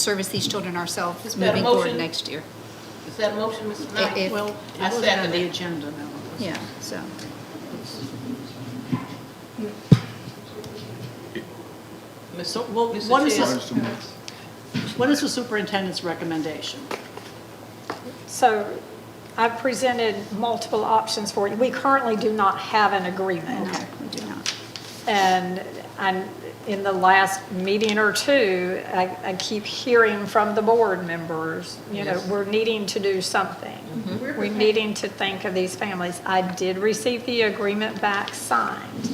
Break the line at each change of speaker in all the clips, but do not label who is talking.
service these children ourselves
Is that a
moving forward
motion?
next year.
Is that a motion, Mr. Knight?
If-
Well,
I
it wasn't on
second
the
it.
agenda, no.
Yeah, so,
So, well,
Mr.
what is,
Chair.
this- what is the superintendent's recommendation?
So I've presented multiple options for you. We currently do not have an agreement.
no, we do not.
And i in the last meeting or two, I, I keep hearing from the board members, you know,
Yes.
we're needing to do something.
We're
We're
prepared.
needing to think of these families. I did receive the agreement back signed.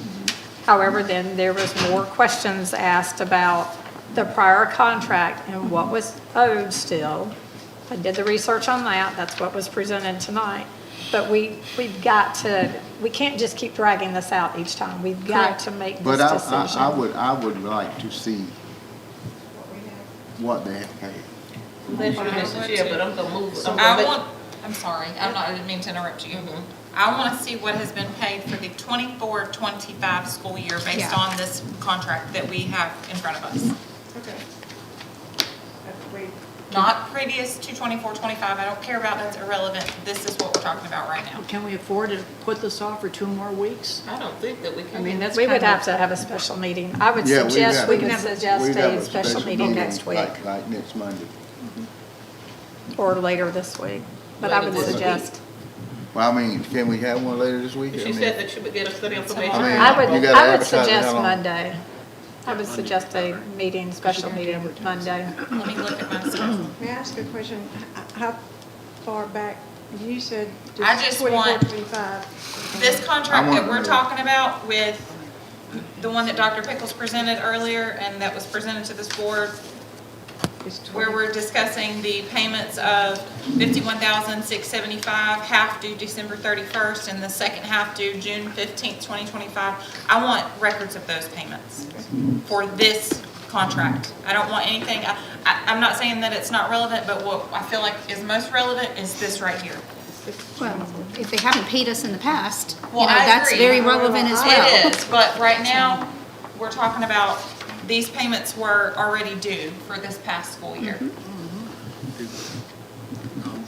However, then there was more questions asked about the prior contract and what was owed still. I did the research on that, that's what was presented tonight. But we, we've got to, we can't just keep dragging this out each time. We've got
Correct.
to make this
But I, I, I
decision.
would, I would like to see what they have paid.
Thank you, Mr. Chair, but I'm gonna move. I'm gonna
I
make-
want, I'm sorry, I'm not, I didn't mean to interrupt you. I want to see what has been paid for the 24-25 school year
Yeah.
based on this contract that we have in front of us.
Okay. That's wait.
Not previous to 24-25. I don't care about, that's irrelevant. This is what we're talking about right now.
Can we afford to put this off for two more weeks?
I don't think that we can.
I mean, that's
We
kind
would have
of,
to have a special meeting. I would
Yeah, we'd
suggest,
have-
we could
we'd
suggest
have
a special meeting next week
Like, like next Monday.
or later this week. But I
Later
would
this week.
suggest,
Well, I mean, can we have one later this week? I
She
mean,
said that she would get us the information.
I mean,
I
you
would,
gotta
I would
advertise it how
suggest
long?
Monday. I would suggest a meeting, special meeting Monday.
Let me look at my schedule.
May I ask a question? H- How far back, you said
I
just
just
24,
want-
25.
This
I
contract
want-
that we're talking about with the one that Dr. Pickles presented earlier and that was presented to this board
It's
where
20.
we're discussing the payments of fifty-one thousand, six seventy-five, half due December thirty-first, and the second half due June fifteenth, twenty twenty-five. I want records of those payments for this contract. I don't want anything, I, I, I'm not saying that it's not relevant, but what I feel like is most relevant is this right here.
Well, if they haven't paid us in the past, you know,
Well, I
that's
agree.
very relevant as well.
It is, but right now, we're talking about, these payments were already due for this past school year.
Mm-hmm.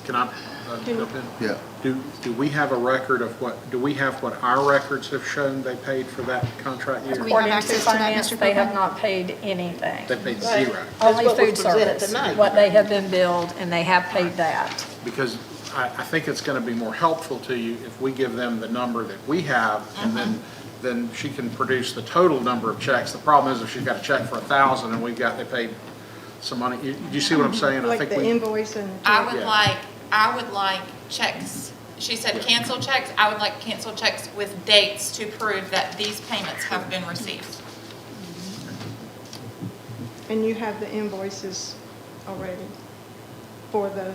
Can I uh, jump in?
Yeah,
Do, do we have a record of what, do we have what our records have shown they paid for that contract
Do
year?
we have
According to
access to that,
finance,
Mr.
they
Copeland?
have not paid anything.
They paid zero,
Only
what was
food
presented
service,
tonight.
what they have been billed, and they have paid that.
because I, I think it's going to be more helpful to you if we give them the number that we have, and then, then she can produce the total number of checks. The problem is if she's got a check for a thousand and we've got, they paid some money, you, you see what I'm saying? I
Like
think
the
we.
invoice and.
I would
Yeah.
like, I would like checks, she said cancel checks, I would like cancel checks with dates to prove that these payments have been received.
And you have the invoices already for the,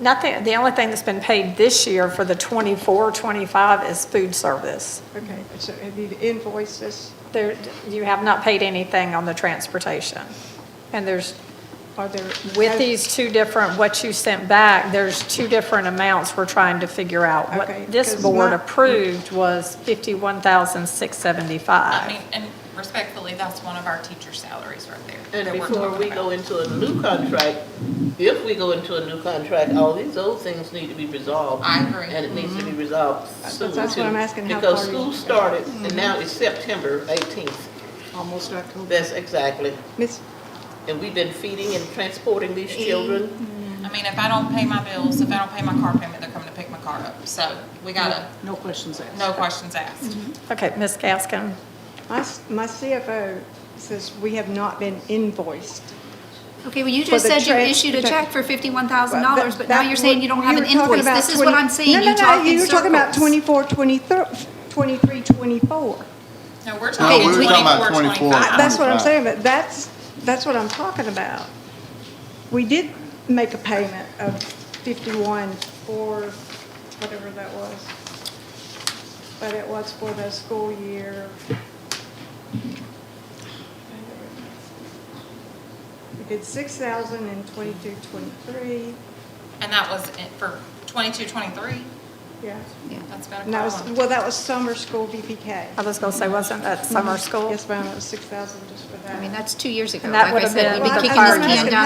Nothing, the only thing that's been paid this year for the 24, 25 is food service.
okay,
Mm-hmm.
so have you invoices?
There, you have not paid anything on the transportation. And there's,
Are there?
with
have-
these two different, what you sent back, there's two different amounts we're trying to figure out.
Okay,
What this
'cause
board
my-
approved was
I
51,675.
mean, and respectfully, that's one of our teacher's salaries right there.
And
that we're
before
talking
we
about.
go into a new contract, if we go into a new contract, all these old things need to be resolved.
I agree.
And it needs to be resolved soon.
That's what I'm
too,
asking, how
Because
far you-
school started, and now it's September eighteenth.
almost October.
That's exactly.
Miss,
And we've been feeding and transporting these children.
I mean, if I don't pay my bills, if I don't pay my car payment, they're coming to pick my car up, so we gotta,
No questions asked.
no questions
Mm-hmm.
asked.
Okay, Ms. Gaskin,
my, s- my CFO says we have not been invoiced.
Okay, well, you
For
just
the
said you
trans-
issued a
the-
check for fifty-one thousand dollars, but now
That-
you're saying you don't have
you
an
were talking
invoice.
about
This is what
20
I'm
No,
saying,
no,
you
no,
talk
you
in
were talking about
circles.
24, 23, 24.
No, we're
No,
talking
we were talking about
twenty-four,
24.
twenty-five.
I- That's what I'm
25.
saying, but that's, that's what I'm talking about. We did make a payment of 51 for whatever that was. But it was for the school year. We did 6,000 in 22, 23.
And that was it for twenty-two, twenty-three?
yeah.
That's been a
And that was,
problem.
well, that was summer school BPK.
I was gonna say, wasn't that summer school?
Yes, ma'am, it was six thousand just for that.
I mean, that's two years ago.
And that
Like I
would've
said,
been
we'd be
the
kicking this
priority.
can down